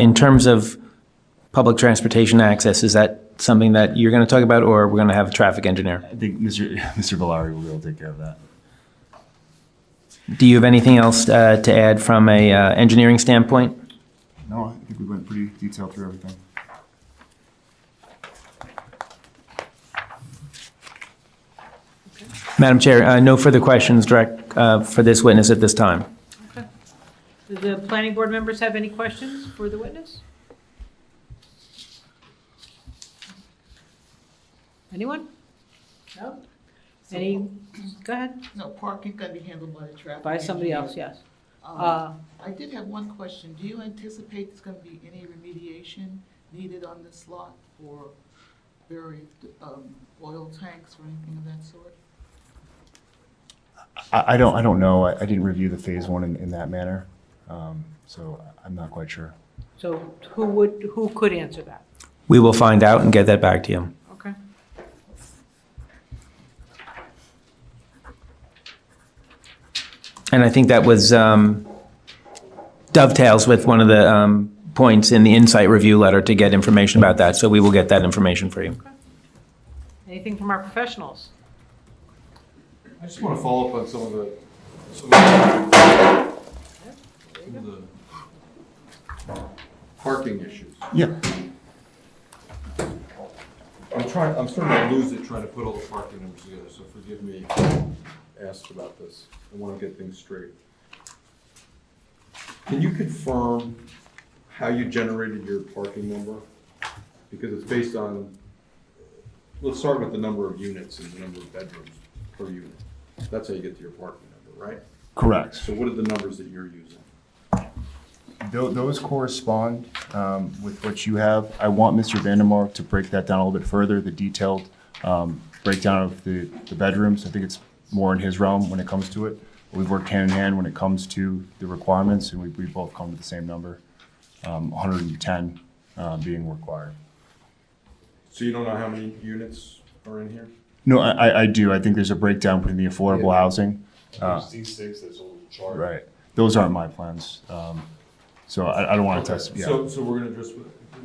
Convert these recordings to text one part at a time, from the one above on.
In terms of public transportation access, is that something that you're going to talk about, or we're going to have a traffic engineer? I think Mr. Mr. Valari will be able to take care of that. Do you have anything else uh, to add from a uh, engineering standpoint? No, I think we went pretty detailed through everything. Madam Chair, uh, no further questions direct uh, for this witness at this time. Do the planning board members have any questions for the witness? Anyone? No? Any, go ahead, No, parking can be handled by the traffic. by somebody engineer. else, yes. Um, Uh, I did have one question. Do you anticipate there's going to be any remediation needed on this lot for buried um, oil tanks or anything of that sort? I, I don't, I don't know. I, I didn't review the phase one in, in that manner. Um, so I'm not quite sure. So who would, who could answer that? We will find out and get that back to you. Okay. And I think that was um, dovetails with one of the um, points in the insight review letter to get information about that, so we will get that information for you. Anything from our professionals? I just want to follow up on some of the, some of the- some of the parking issues. Yeah. I'm trying, I'm starting to lose it trying to put all the parking numbers together, so forgive me if I asked about this. I want to get things straight. Can you confirm how you generated your parking number? Because it's based on, let's start with the number of units and the number of bedrooms per unit. That's how you get to your parking number, right? Correct. So what are the numbers that you're using? Tho- those correspond, um, with what you have. I want Mr. Vandermark to break that down a little bit further, the detailed, um, breakdown of the, the bedrooms. I think it's more in his realm when it comes to it. We've worked hand in hand when it comes to the requirements and we, we both come to the same number, um, hundred and ten, uh, being required. So you don't know how many units are in here? No, I, I- I do. I think there's a breakdown between the affordable housing. There's D six, there's a little chart. Right. Those aren't my plans. Um, so I, I don't want to test, yeah. So, so we're gonna just,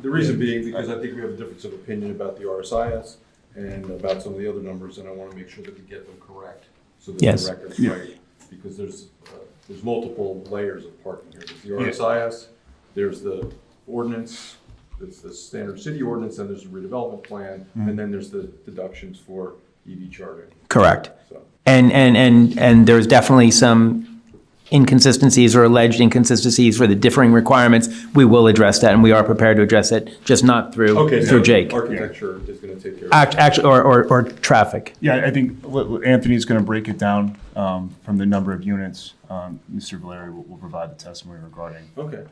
the reason being, because I think we have a difference of opinion about the RSIS and about some of the other numbers, and I wanna make sure that we get them correct. So that Yes. the record's right, because there's, uh, there's multiple layers of parking here. There's the RSIS, there's the ordinance, there's the standard city ordinance, and there's the redevelopment plan, and then there's the deductions for EV charging, Correct. so. And, and, and, and there's definitely some inconsistencies or alleged inconsistencies for the differing requirements. We will address that, and we are prepared to address it, just not Okay, through, so through Jake. architecture is gonna take care of Act, that. act, or, or, or traffic. Yeah, I- I think what- what Anthony's going to break it down, um, from the number of units. Um, Mr. Valeri will, will provide the testimony regarding. Okay.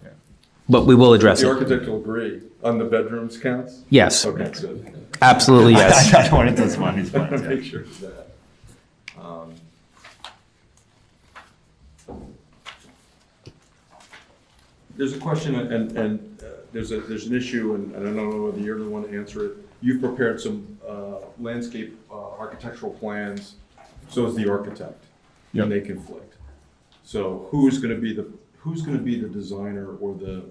But we will address The it. architect will agree on the bedrooms counts? Yes, Okay, good. absolutely, yes. I don't want to test my, his plans. yeah. Make sure of that. Um, There's a question, and, and uh, there's a, there's an issue, and and I don't know whether you're the one to answer it. You've prepared some uh, landscape uh, architectural plans, so is the architect. Yep. And they conflict. So who's going to be the, who's going to be the designer or the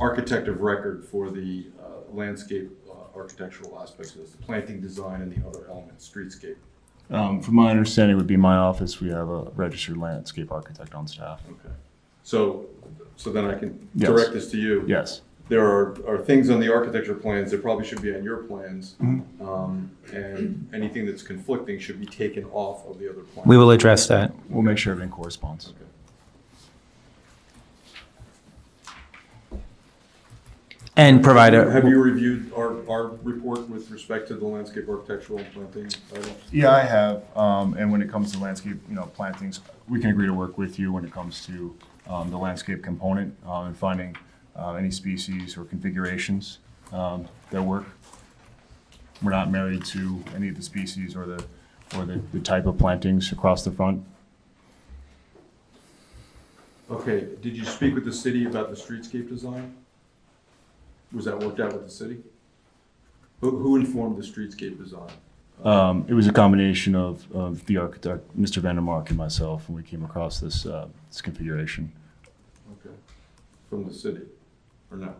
architect of record for the uh, landscape uh, architectural aspects of this? The planting design and the other elements, streetscape. Um, from my understanding, it would be my office. We have a registered landscape architect on staff. Okay. So, so then I can Yes. direct this to you. Yes. There are, are things on the architecture plans that probably should be on your plans. um, And anything that's conflicting should be taken off of the other plan. We will address that. We'll make sure everything corresponds. And provide a. Have you reviewed our, our report with respect to the landscape architectural planting items? Yeah, I have. Um, and when it comes to landscape, you know, plantings, we can agree to work with you when it comes to, um, the landscape component, um, and finding, uh, any species or configurations, um, that work. We're not married to any of the species or the, or the, the type of plantings across the front. Okay, did you speak with the city about the streetscape design? Was that worked out with the city? Who, who informed the streetscape design? Um, it was a combination of, of the architect, Mr. Vandermark and myself, when we came across this, uh, this configuration. Okay, From the city, or no?